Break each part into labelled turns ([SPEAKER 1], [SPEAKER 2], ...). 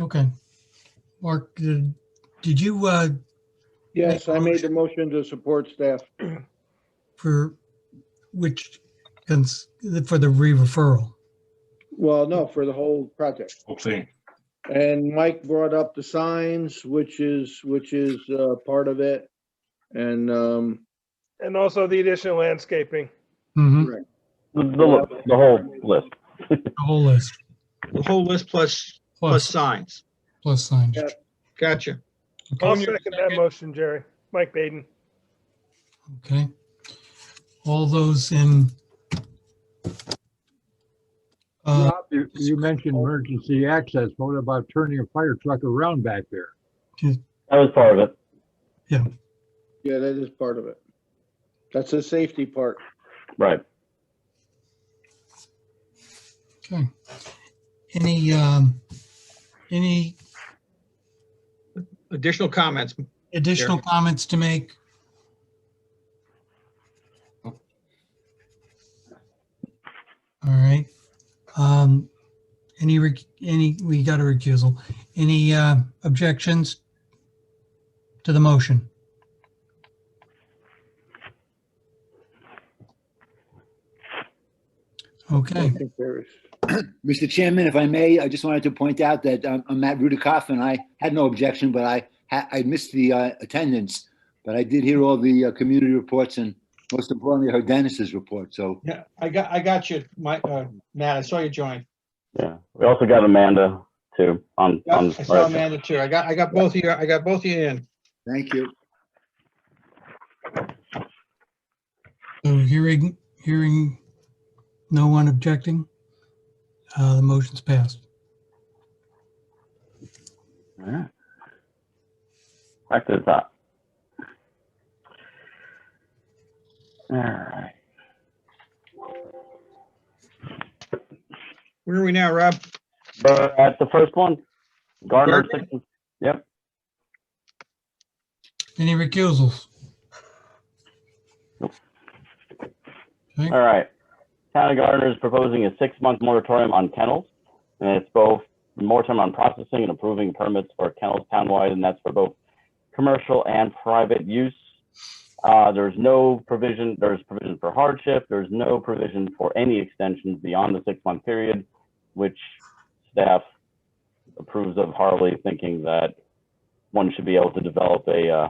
[SPEAKER 1] Okay. Mark, did did you, uh,
[SPEAKER 2] Yes, I made the motion to support staff.
[SPEAKER 1] for which, cons- for the re-referral?
[SPEAKER 2] Well, no, for the whole project.
[SPEAKER 3] whole thing.
[SPEAKER 2] And Mike brought up the signs, which is, which is uh, part of it. And um,
[SPEAKER 4] And also the additional landscaping.
[SPEAKER 1] Mm-hmm,
[SPEAKER 5] The, the, the whole list.
[SPEAKER 1] the whole list,
[SPEAKER 6] The whole list plus, plus
[SPEAKER 1] plus,
[SPEAKER 6] signs.
[SPEAKER 1] plus signs.
[SPEAKER 2] Yeah.
[SPEAKER 6] Gotcha.
[SPEAKER 4] I'll
[SPEAKER 6] Tom, you're
[SPEAKER 4] second that motion, Jerry. Mike Baden.
[SPEAKER 1] Okay. All those in. Uh,
[SPEAKER 7] Rob, you, you mentioned emergency access. What about turning a fire truck around back there?
[SPEAKER 5] That was part of it.
[SPEAKER 2] yeah, that is part of it. That's the safety part.
[SPEAKER 5] Right.
[SPEAKER 1] okay. Any, um, any
[SPEAKER 6] Additional comments?
[SPEAKER 1] additional comments to make? All right. Um, any, rec- any, we got a recusal. Any, uh, objections to the motion? Okay,
[SPEAKER 2] Motion carries.
[SPEAKER 8] Mr. Chairman, if I may, I just wanted to point out that um, I'm Matt Rudikoff, and I had no objection, but I ha- I missed the uh, attendance. But I did hear all the uh, community reports, and most importantly, I heard Dennis's report. So
[SPEAKER 6] Yeah, I got, I got you, Mike, uh, Matt, I saw you join.
[SPEAKER 5] Yeah. We also got Amanda too on,
[SPEAKER 6] Yeah,
[SPEAKER 5] on.
[SPEAKER 6] I saw Amanda too. I got, I got both of you, I got both of you in.
[SPEAKER 8] thank you.
[SPEAKER 1] so hearing, hearing no one objecting, uh, the motion's passed.
[SPEAKER 5] Alright. Back to the top. All right.
[SPEAKER 6] Where are we now, Rob?
[SPEAKER 5] But at the first one, Gardner, six-
[SPEAKER 1] Any recusals?
[SPEAKER 5] all right. Town of Gardner is proposing a six-month moratorium on kennels. And it's both moratorium on processing and approving permits for kennels townwide, and that's for both commercial and private use. Uh, there's no provision, there's provision for hardship, there's no provision for any extensions beyond the six-month period, which staff approves of Harley, thinking that one should be able to develop a, uh,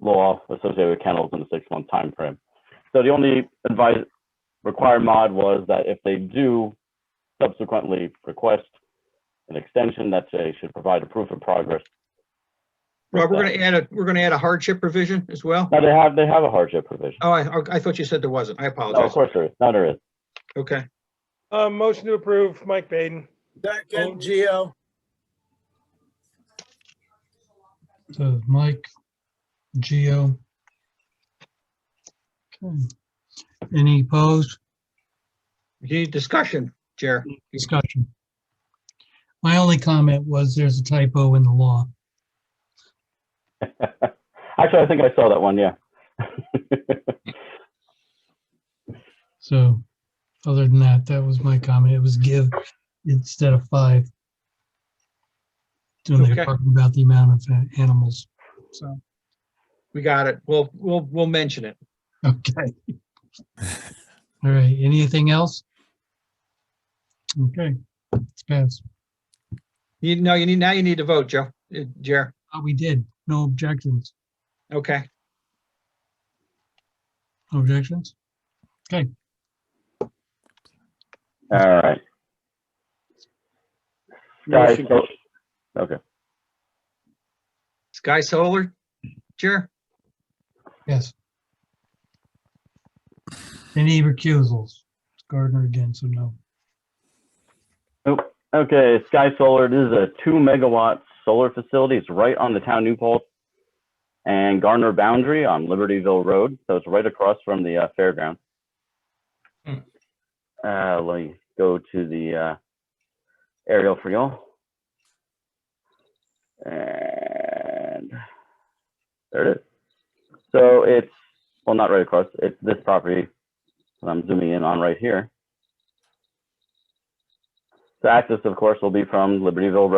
[SPEAKER 5] law associated with kennels in a six-month time frame. So the only advice, required mod was that if they do subsequently request an extension, that they should provide a proof of progress.
[SPEAKER 6] Rob, we're gonna add a, we're gonna add a hardship provision as well?
[SPEAKER 5] No, they have, they have a hardship provision.
[SPEAKER 6] Oh, I, I thought you said there wasn't. I
[SPEAKER 5] No, of
[SPEAKER 6] apologize.
[SPEAKER 5] course there is. No, there is.
[SPEAKER 6] Okay.
[SPEAKER 4] Uh, motion to approve, Mike Baden.
[SPEAKER 9] Second, Geo.
[SPEAKER 1] So Mike, Geo. Okay. Hmm. Any opposed?
[SPEAKER 6] You need discussion, Jer.
[SPEAKER 1] Discussion. My only comment was there's a typo in the law.
[SPEAKER 5] Actually, I think I saw that one, yeah.
[SPEAKER 1] So other than that, that was my comment. It was give instead of five. When
[SPEAKER 6] Okay.
[SPEAKER 1] they're talking about the amount of uh, animals.
[SPEAKER 6] So we got it. We'll, we'll, we'll mention it.
[SPEAKER 1] Okay. All right, anything else? Okay, it's passed.
[SPEAKER 6] You know, you need, now you need to vote, Joe, Uh, Jer.
[SPEAKER 1] Oh, we did. No objections.
[SPEAKER 6] Okay.
[SPEAKER 1] No Objections?
[SPEAKER 5] All right. Guys,
[SPEAKER 2] Motion
[SPEAKER 5] so-
[SPEAKER 6] Sky Solar, Jer?
[SPEAKER 1] Yes. Any recusals? Gardner again, so no.
[SPEAKER 5] Okay, Sky Solar, this is a two megawatt solar facility. It's right on the town Newport and Garner boundary on Libertyville Road. So it's right across from the uh, fairground.
[SPEAKER 6] Hmm.
[SPEAKER 5] Uh, let me go to the uh, aerial for y'all. And there it is. So it's, well, not right across, it's this property that I'm zooming in on right here. The access, of course, will be from Libertyville Road.